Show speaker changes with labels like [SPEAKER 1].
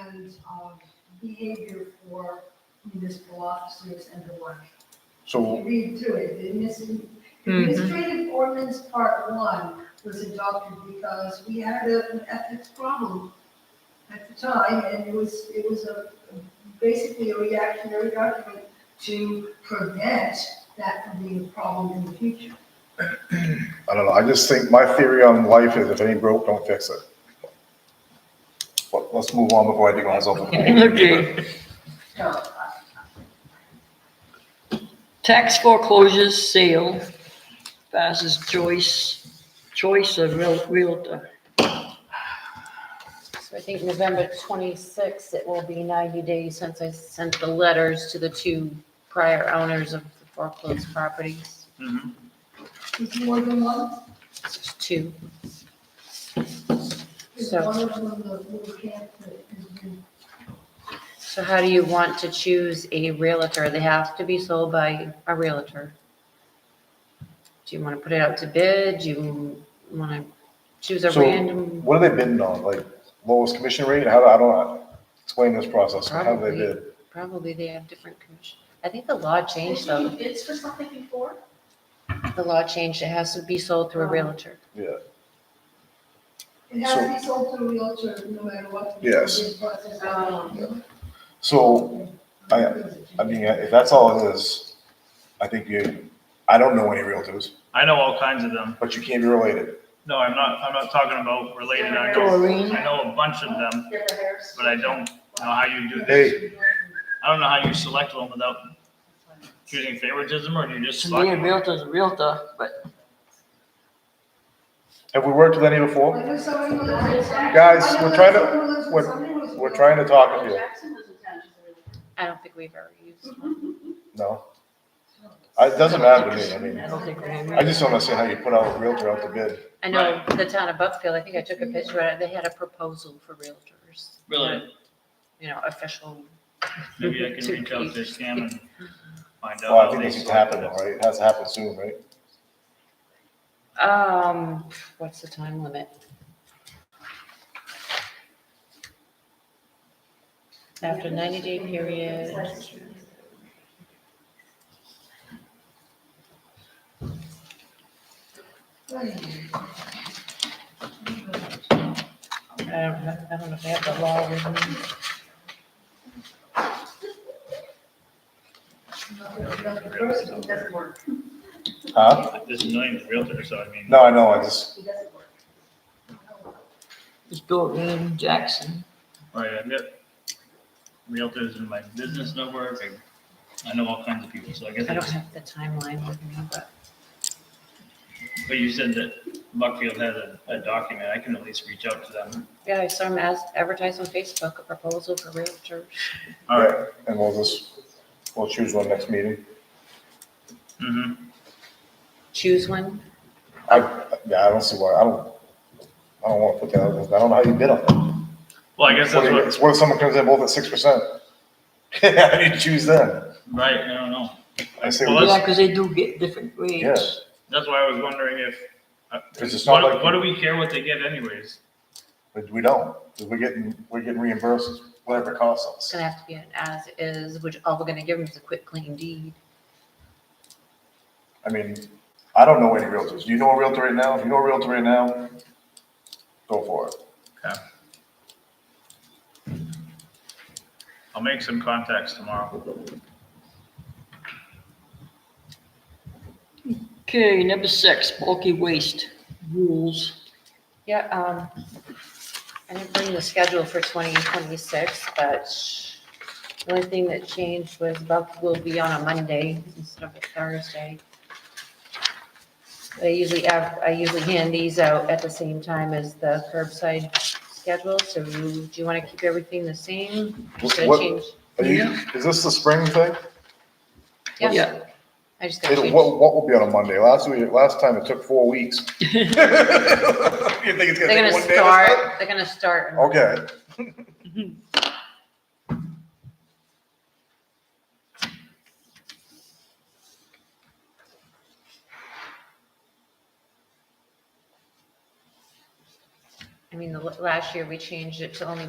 [SPEAKER 1] um, behavior for municipal officers and the like. If
[SPEAKER 2] So,
[SPEAKER 1] you read through it, the adminis- administrative ordinance part one was adopted because we had a- an ethics problem at the time, and it was, it was a, basically a reactionary document to prevent that from being a problem in the future.
[SPEAKER 2] I don't know, I just think my theory on life is if it ain't broke, don't fix it. But let's move on before I dig myself.
[SPEAKER 3] Okay,
[SPEAKER 1] So, uh, I-
[SPEAKER 3] tax foreclosures sale versus choice, choice of real- realtor.
[SPEAKER 4] So I think November twenty-sixth, it will be ninety days since I sent the letters to the two prior owners of the foreclosed properties.
[SPEAKER 1] is more than one?
[SPEAKER 4] It's two.
[SPEAKER 1] Is
[SPEAKER 4] So-
[SPEAKER 1] one of them the little camp that has been,
[SPEAKER 4] So how do you want to choose a realtor? They have to be sold by a realtor. Do you want to put it out to bid? Do you want to choose a
[SPEAKER 2] So-
[SPEAKER 4] random?
[SPEAKER 2] What are they bidding on? Like lowest commission rate? How do, I don't know. Explain this process. How do they
[SPEAKER 4] Probably.
[SPEAKER 2] bid?
[SPEAKER 4] Probably they have different commission. I think the law changed though.
[SPEAKER 5] bids for something before?
[SPEAKER 4] The law changed. It has to be sold through a
[SPEAKER 1] Oh.
[SPEAKER 4] realtor.
[SPEAKER 1] it has to be sold to a realtor no matter what. the
[SPEAKER 2] Yes.
[SPEAKER 1] bid process is.
[SPEAKER 5] Um,
[SPEAKER 2] So I- I mean, if that's all it is, I think you, I don't know any realtors,
[SPEAKER 6] I know all kinds of them.
[SPEAKER 2] but you can't be related.
[SPEAKER 6] No, I'm not, I'm not talking about related. I know,
[SPEAKER 3] Doreen,
[SPEAKER 6] I know a bunch of them,
[SPEAKER 5] Get the hairs.
[SPEAKER 6] but I don't know how you do this.
[SPEAKER 2] Hey,
[SPEAKER 6] I don't know how you select one without choosing favoritism or do you just
[SPEAKER 3] to me,
[SPEAKER 6] select
[SPEAKER 3] a
[SPEAKER 6] one?
[SPEAKER 3] realtor's a realtor, but
[SPEAKER 2] have we worked with any before?
[SPEAKER 1] I know somebody who lives in-
[SPEAKER 2] Guys,
[SPEAKER 1] I know
[SPEAKER 2] we're trying to-
[SPEAKER 1] someone who lives in-
[SPEAKER 2] we're-
[SPEAKER 1] somebody who lives in-
[SPEAKER 2] We're trying to talk
[SPEAKER 5] Michael
[SPEAKER 2] with you.
[SPEAKER 5] Jackson was attached to
[SPEAKER 4] I don't think we've ever used.
[SPEAKER 2] No, I- it doesn't matter to me. I mean,
[SPEAKER 3] I don't think we have.
[SPEAKER 2] I just don't understand how you put out a realtor out to bid.
[SPEAKER 4] I know the town of Buckfield, I think I took a picture, of it, they had a proposal for realtors.
[SPEAKER 6] Really?
[SPEAKER 4] You know, official,
[SPEAKER 6] Maybe I can reach out to Sam and find out.
[SPEAKER 2] Well, I
[SPEAKER 6] how
[SPEAKER 2] think
[SPEAKER 6] they
[SPEAKER 2] this has
[SPEAKER 6] select
[SPEAKER 2] happened,
[SPEAKER 6] it.
[SPEAKER 2] right? It has to happen soon, right?
[SPEAKER 4] um, what's the time limit? After ninety day period, I don't, know- I don't know if they have the law with me.
[SPEAKER 1] The person doesn't work.
[SPEAKER 2] Huh?
[SPEAKER 6] There's millions of realtors, so I mean.
[SPEAKER 2] No, I know, I just,
[SPEAKER 1] He doesn't work.
[SPEAKER 3] it's Doreen Jackson.
[SPEAKER 6] Right, I've got realtors in my business network. I- I know all kinds of people, so I guess,
[SPEAKER 4] I don't
[SPEAKER 6] it's-
[SPEAKER 4] have the timeline with me, but
[SPEAKER 6] but you said that Buckfield has a, a document. I can at least reach out to them.
[SPEAKER 4] yeah, I saw them as, advertise on Facebook, a proposal for realtors.
[SPEAKER 6] All right.
[SPEAKER 2] and we'll just, we'll choose one next meeting.
[SPEAKER 6] Mm-hmm.
[SPEAKER 4] Choose one,
[SPEAKER 2] I, yeah, I don't see why, I don't, I don't wanna put that, out there. I don't know how you bid on that.
[SPEAKER 6] Well, I guess that's
[SPEAKER 2] What
[SPEAKER 6] what,
[SPEAKER 2] if- What if someone comes in both at six percent? How do you choose then?
[SPEAKER 6] right, I don't know.
[SPEAKER 2] I say,
[SPEAKER 6] Well,
[SPEAKER 3] Yeah,
[SPEAKER 2] well,
[SPEAKER 6] that's-
[SPEAKER 3] because they do get different rates.
[SPEAKER 6] That's why I was wondering if, uh,
[SPEAKER 2] 'Cause it's not
[SPEAKER 6] what,
[SPEAKER 2] like-
[SPEAKER 6] what do we care what they get anyways?
[SPEAKER 2] but we don't, 'cause we're getting, we're getting reimbursed whatever it
[SPEAKER 4] it's
[SPEAKER 2] costs us.
[SPEAKER 4] gonna have to be an as is, which all we're gonna give them is a quick clean deed.
[SPEAKER 2] I mean, I don't know any realtors. Do you know a realtor right now? If you know a realtor right now, go for it.
[SPEAKER 6] I'll make some contacts tomorrow.
[SPEAKER 3] Okay, number six, bulky waste rules.
[SPEAKER 4] Yeah, um, I didn't bring the schedule for twenty twenty-six, but the only thing that changed was Buck will be on a Monday instead of a Thursday. I usually have, I usually hand these out at the same time as the curbside schedule, so do you wanna keep everything the same? Should I
[SPEAKER 2] What-
[SPEAKER 4] change?
[SPEAKER 2] Are you, is this the spring thing?
[SPEAKER 4] Yeah,
[SPEAKER 3] Yeah.
[SPEAKER 4] I just gotta
[SPEAKER 2] It,
[SPEAKER 4] change.
[SPEAKER 2] what, what will be on a Monday? Last week, last time it took four weeks. You think it's gonna
[SPEAKER 4] They're
[SPEAKER 2] take
[SPEAKER 4] gonna
[SPEAKER 2] one day? this time?
[SPEAKER 4] start, they're gonna start. in
[SPEAKER 2] Okay,
[SPEAKER 4] I mean, the, last year we changed it to only